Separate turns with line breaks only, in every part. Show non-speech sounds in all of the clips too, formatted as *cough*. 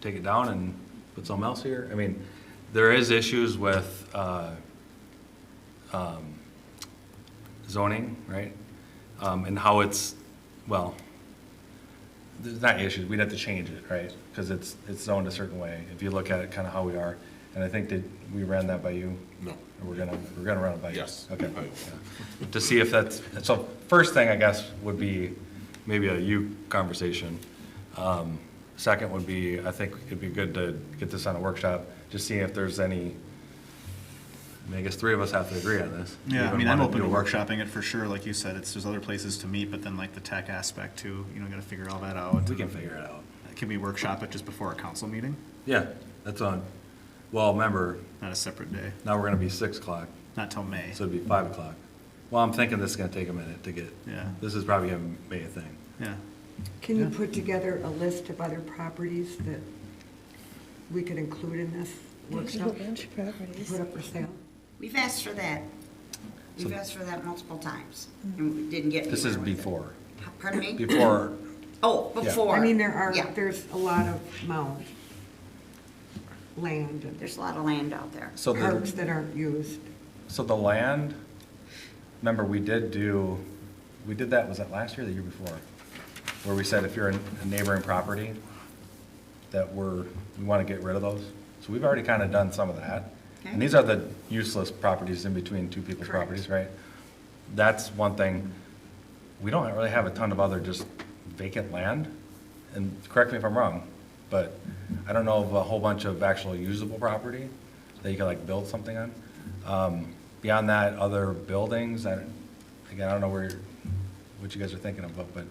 take it down and put something else here? I mean, there is issues with, uh, um, zoning, right? Um, and how it's, well, there's not issues, we'd have to change it, right? Because it's, it's zoned a certain way, if you look at it, kind of how we are. And I think that we ran that by you,
No.
and we're gonna, we're gonna run it by you.
Yes.
Okay.
I-
Yeah. To see if that's, so first thing, I guess, would be maybe a you conversation. Um, Second would be, I think it'd be good to get this on a workshop, just see if there's any, I mean, I guess three of us have to agree on this.
Yeah, I
Even
mean, I'm
wanna
open
do
to
a
workshopping it for sure, like you said, it's, there's other places to meet, but then like the tech aspect too, you know, gotta figure all that out.
We can figure it out.
Can we workshop it just before a council meeting,
Yeah, that's on, well, remember,
not a separate day,
now we're gonna be six o'clock,
not till May?
so it'd be five o'clock. Well, I'm thinking this is gonna take a minute to get,
Yeah.
this is probably gonna be a thing.
Yeah,
Can you
Yeah.
put together a list of other properties that we could include in this
There's a whole
workshop?
bunch of properties.
Put up for sale?
We've asked for that. We've asked for that multiple times, and we didn't get anywhere
This is
with it.
before,
Pardon me?
before
Oh,
Yeah.
before.
I mean, there are,
Yeah,
there's a lot of mound, land, and
there's a lot of land out there.
So
parks
the,
that aren't used.
so the land, remember, we did do, we did that, was that last year or the year before? Where we said if you're in a neighboring property, that we're, we want to get rid of those. So we've already kind of done some of that.
Okay.
And these are the useless properties in between two people's
Correct.
properties, right? That's one thing. We don't really have a ton of other just vacant land. And correct me if I'm wrong, but I don't know of a whole bunch of actual usable property that you can like build something on. Um, Beyond that, other buildings, I, again, I don't know where, you're- what you guys are thinking of, but- but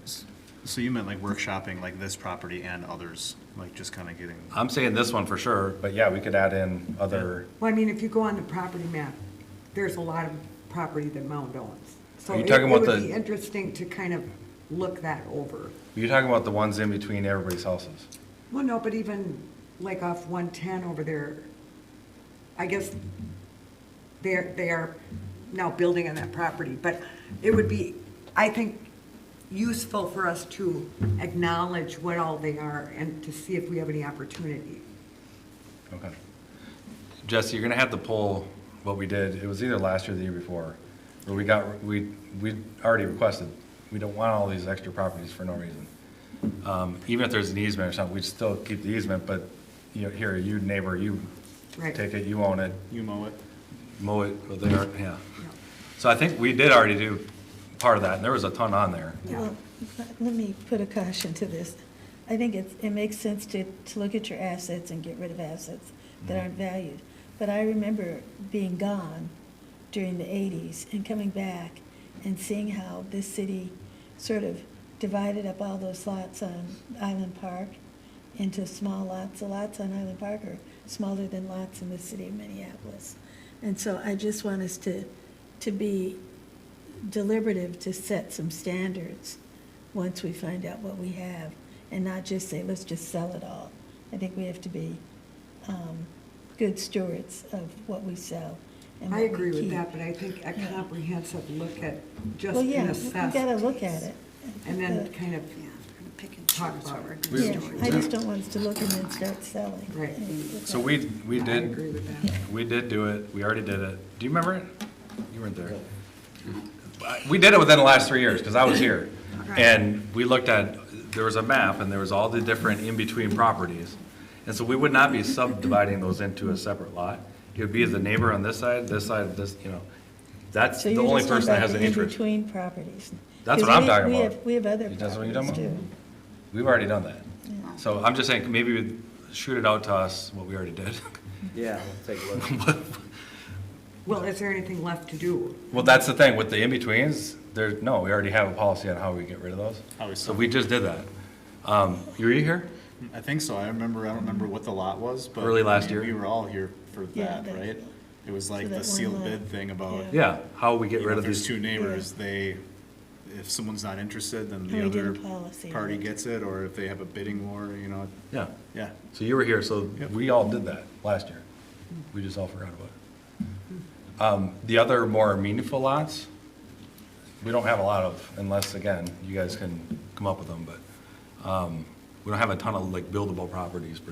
so you meant like workshopping like this property and others, like just kinda getting,
I'm saying this one for sure, but yeah, we could add in other.
Well, I mean, if you go on the property map, there's a lot of property that mound owns. So
Are you
it
talking
it
about
would
the-
be interesting to kind of look that over.
You're talking about the ones in between everybody's houses?
Well, no, but even like off 110 over there, I guess they're, they are now building on that property, but it would be, I think, useful for us to acknowledge what all they are and to see if we have any opportunity.
Okay. Jesse, you're gonna have to pull what we did, it was either last year or the year before, where we got, we, we already requested, we don't want all these extra properties for no reason. Um, even if there's an easement or something, we'd still keep the easement, but, you know, here, you neighbor, you
Right.
take it, you own it,
you mow it?
mow it, well, they are, yeah. So I think we did already do part of that, and there was a ton on there.
Well, let- let me put a caution to this. I think it's, it makes sense to, to look at your assets and get rid of assets that aren't valued. But I remember being gone during the eighties and coming back and seeing how this city sort of divided up all those lots on Island Park into small lots. The lots on Island Park are smaller than lots in the city of Minneapolis. And so I just want us to, to be deliberative to set some standards once we find out what we have and not just say, let's just sell it all. I think we have to be um, good stewards of what we sell and
I
what we
agree with
keep.
that, but I think a comprehensive look at just
Well,
an
yeah, we
assessment.
gotta look at it.
And then kind of,
Yeah, we're gonna pick and
Talk
choose
about
what we're
it.
gonna
We-
Yeah,
do.
I just don't want us to look and then start selling.
Right.
So we, we
I
did.
agree with that.
We did do it, we already did it. Do you remember it? You weren't there. We did it within the last three years, because I was here. And we looked at, there was a map, and there was all the different in-between properties. And so we would not be subdividing those into a separate lot. It would be the neighbor on this side, this side, this, you know. That's
So
the
you're
only
just talking
person that
about
has an
the
interest.
in-between properties.
That's what
'Cause
I'm
we-
talking
we
about.
have- We have other
That's what you're talking
properties too.
We've already done that. So I'm just saying, maybe we'd shoot it out to us, what we already did.
*laughs* Yeah, we'll take a look.
well, is there anything left to do?
*laughs* Well, that's the thing, with the in-betweens, there, no, we already have a policy on how we get rid of those.
How we
So
sell.
we just did that. Um, were you here?
I think so, I remember, I don't remember what the lot was, but.
Early last
we-
year.
We were all here for
Yeah,
that,
that-
right? It was like
that
the
one
sealed
lot.
bid thing about.
Yeah.
Yeah, how we
you
get
know,
rid
if
of
there's
these.
two neighbors, they, if someone's not interested, then
And
the
we did a
other
policy on
party
it.
gets it, or if they have a bidding war, you know,
Yeah,
yeah.
so you were here, so
Yep.
we all did that last year. We just all forgot about it. Um, the other more meaningful lots, we don't have a lot of, unless, again, you guys can come up with them, but, um, we don't have a ton of like buildable properties per